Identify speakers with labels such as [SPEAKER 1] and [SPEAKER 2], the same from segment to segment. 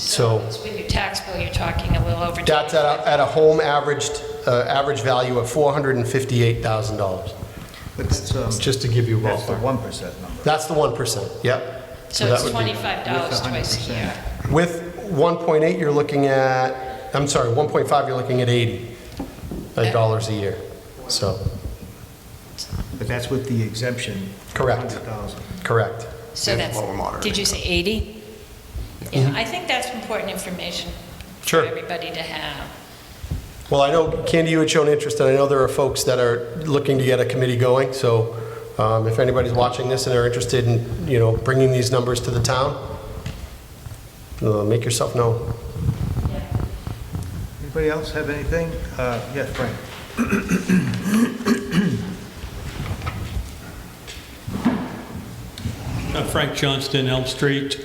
[SPEAKER 1] So
[SPEAKER 2] it's With your tax bill, you're talking a little over.
[SPEAKER 1] that's at a, at a home averaged, uh, average value of $458,000,
[SPEAKER 3] But that's, um,
[SPEAKER 1] just to give you a
[SPEAKER 3] that's the
[SPEAKER 1] ballpark.
[SPEAKER 3] 1% number.
[SPEAKER 1] That's the 1%, yep.
[SPEAKER 2] So
[SPEAKER 1] that
[SPEAKER 2] it's
[SPEAKER 1] would be-
[SPEAKER 2] twenty-five dollars
[SPEAKER 3] With the
[SPEAKER 2] twice a
[SPEAKER 3] 100%.
[SPEAKER 2] year.
[SPEAKER 1] With 1.8, you're looking at, I'm sorry, 1.5, you're looking at 80 uh, dollars a year. So,
[SPEAKER 3] But that's with the exemption.
[SPEAKER 1] Correct.
[SPEAKER 3] 100,000.
[SPEAKER 1] correct.
[SPEAKER 2] So that's, did you say eighty?
[SPEAKER 1] Mm-hmm.
[SPEAKER 2] Yeah, I think that's important information for
[SPEAKER 1] Sure.
[SPEAKER 2] everybody to have.
[SPEAKER 1] Well, I know, Candy, you had shown interest, and I know there are folks that are looking to get a committee going, so um, if anybody's watching this and are interested in, you know, bringing these numbers to the town, uh, make yourself known.
[SPEAKER 3] Anybody else have anything? Uh, Yes, Frank?
[SPEAKER 4] Uh, Frank Johnston, Elm Street.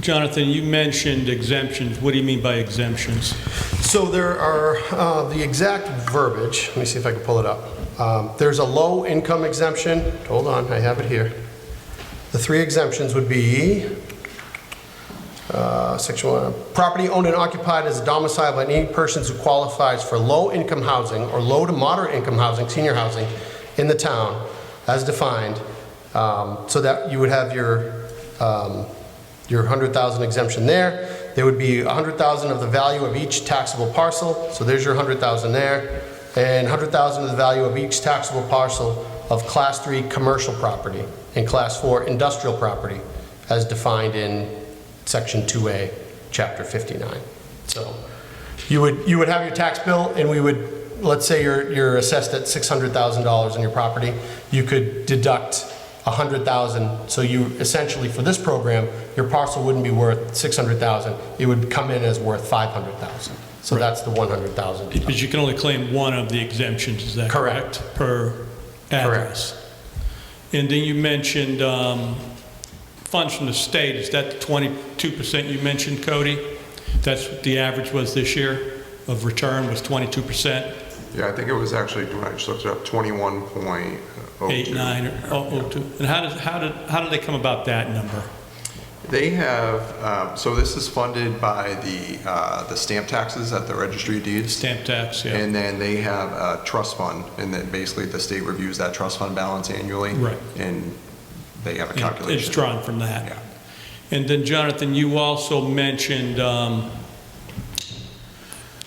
[SPEAKER 4] Jonathan, you mentioned exemptions. What do you mean by exemptions?
[SPEAKER 1] So there are, uh, the exact verbiage, let me see if I can pull it up. Um, There's a low-income exemption, hold on, I have it here. The three exemptions would be E, uh, section one, property owned and occupied as a domicile by any persons who qualifies for low-income housing or low to moderate-income housing, senior housing, in the town, as defined, Um, so that you would have your, um, your 100,000 exemption there. There would be 100,000 of the value of each taxable parcel, so there's your 100,000 there, and 100,000 of the value of each taxable parcel of Class 3 commercial property and Class 4 industrial property, as defined in Section 2A, Chapter 59. So you would, you would have your tax bill, and we would, let's say you're, you're assessed at $600,000 on your property, you could deduct 100,000, so you essentially, for this program, your parcel wouldn't be worth 600,000, it would come in as worth 500,000. So that's the 100,000. deduction.
[SPEAKER 4] Because you can only claim one of the exemptions, is that
[SPEAKER 1] Correct.
[SPEAKER 4] correct? Per address. And then you mentioned um, funds from the state. Is that the 22% you mentioned, Cody? That's what the average was this year of return was 22%,
[SPEAKER 5] Yeah, I think it was actually, when I just looked it up, 21.02.
[SPEAKER 4] 8, 9, or oh, oh, 02. And how did, how did, how did they come about that number?
[SPEAKER 5] They have, um, so this is funded by the, uh, the stamp taxes at the registry of deeds.
[SPEAKER 4] Stamp tax, yeah.
[SPEAKER 5] And then they have a trust fund, and then basically the state reviews that trust fund balance annually.
[SPEAKER 4] Right.
[SPEAKER 5] And they have a
[SPEAKER 4] Yeah,
[SPEAKER 5] calculation.
[SPEAKER 4] It's drawn from that.
[SPEAKER 5] Yeah.
[SPEAKER 4] And then Jonathan, you also mentioned um,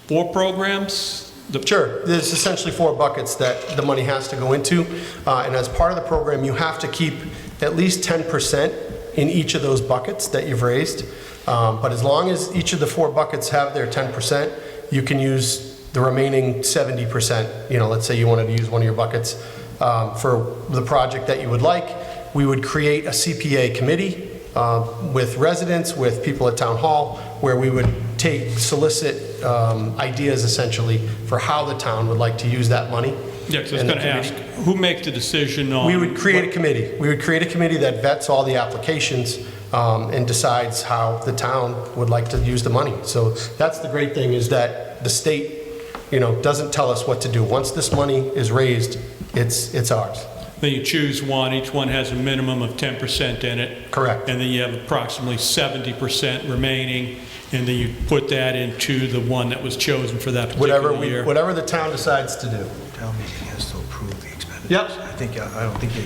[SPEAKER 4] four programs? The-
[SPEAKER 1] Sure, there's essentially four buckets that the money has to go into, uh, and as part of the program, you have to keep at least 10% in each of those buckets that you've raised, Um, but as long as each of the four buckets have their 10%, you can use the remaining 70%, you know, let's say you wanted to use one of your buckets um, for the project that you would like, we would create a CPA committee um, with residents, with people at town hall, where we would take, solicit um, ideas essentially for how the town would like to use that money.
[SPEAKER 4] Yeah, because I was
[SPEAKER 1] And the
[SPEAKER 4] going to ask, um,
[SPEAKER 1] committee-
[SPEAKER 4] who makes the decision on?
[SPEAKER 1] We would create a committee. We would create a committee that vets all the applications um, and decides how the town would like to use the money. So that's the great thing, is that the state, you know, doesn't tell us what to do. Once this money is raised, it's, it's ours.
[SPEAKER 4] Then you choose one, each one has a minimum of 10% in it.
[SPEAKER 1] Correct.
[SPEAKER 4] And then you have approximately 70% remaining, and then you put that into the one that was chosen for that
[SPEAKER 1] Whatever,
[SPEAKER 4] particular
[SPEAKER 1] we
[SPEAKER 4] year.
[SPEAKER 1] whatever the town decides to do.
[SPEAKER 3] Tell me he has to approve the expenditures.
[SPEAKER 1] Yep.
[SPEAKER 3] I think, I I don't think he.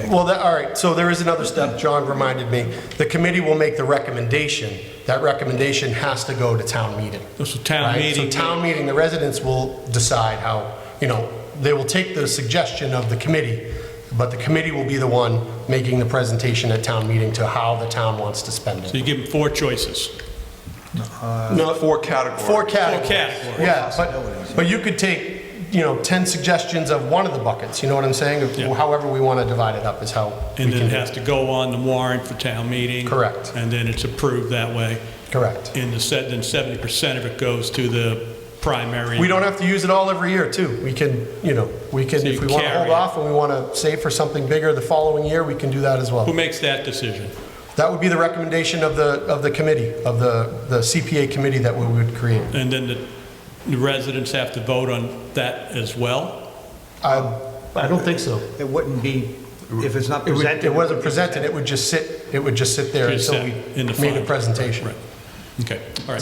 [SPEAKER 3] okay.
[SPEAKER 1] Well, that, all right, so there is another step, John reminded me. The committee will make the recommendation. That recommendation has to go to town meeting.
[SPEAKER 4] So town
[SPEAKER 1] right? So
[SPEAKER 4] meeting.
[SPEAKER 1] town meeting, the residents will decide how, you know, they will take the suggestion of the committee, but the committee will be the one making the presentation at town meeting to how the town wants to spend it.
[SPEAKER 4] So you give them four choices.
[SPEAKER 1] No,
[SPEAKER 5] Four categories.
[SPEAKER 1] Four categories.
[SPEAKER 4] categories.
[SPEAKER 1] Yeah, but, but you could take, you know, 10 suggestions of one of the buckets, you know what I'm saying?
[SPEAKER 4] Yeah.
[SPEAKER 1] However we want to divide it up is how we
[SPEAKER 4] And then
[SPEAKER 1] can
[SPEAKER 4] it
[SPEAKER 1] do
[SPEAKER 4] has
[SPEAKER 1] it.
[SPEAKER 4] to go on the warrant for town meeting.
[SPEAKER 1] Correct.
[SPEAKER 4] And then it's approved that way.
[SPEAKER 1] Correct.
[SPEAKER 4] And the set, then 70% of it goes to the primary.
[SPEAKER 1] We don't have to use it all every year, too. We can, you know, we can,
[SPEAKER 4] So you
[SPEAKER 1] if we want to
[SPEAKER 4] carry
[SPEAKER 1] hold
[SPEAKER 4] it.
[SPEAKER 1] off and we want to save for something bigger the following year, we can do that as
[SPEAKER 4] Who
[SPEAKER 1] well.
[SPEAKER 4] makes that decision?
[SPEAKER 1] That would be the recommendation of the, of the committee, of the, the CPA committee that we would create.
[SPEAKER 4] And then the- the residents have to vote on that as well?
[SPEAKER 1] I, I don't think so.
[SPEAKER 3] It wouldn't be, if it's not
[SPEAKER 1] It would-
[SPEAKER 3] presented.
[SPEAKER 1] it wasn't presented, it would just sit, it would just sit there
[SPEAKER 4] Just
[SPEAKER 1] until we
[SPEAKER 4] sit in the
[SPEAKER 1] made a
[SPEAKER 4] file.
[SPEAKER 1] presentation.
[SPEAKER 4] Right. Okay, all right.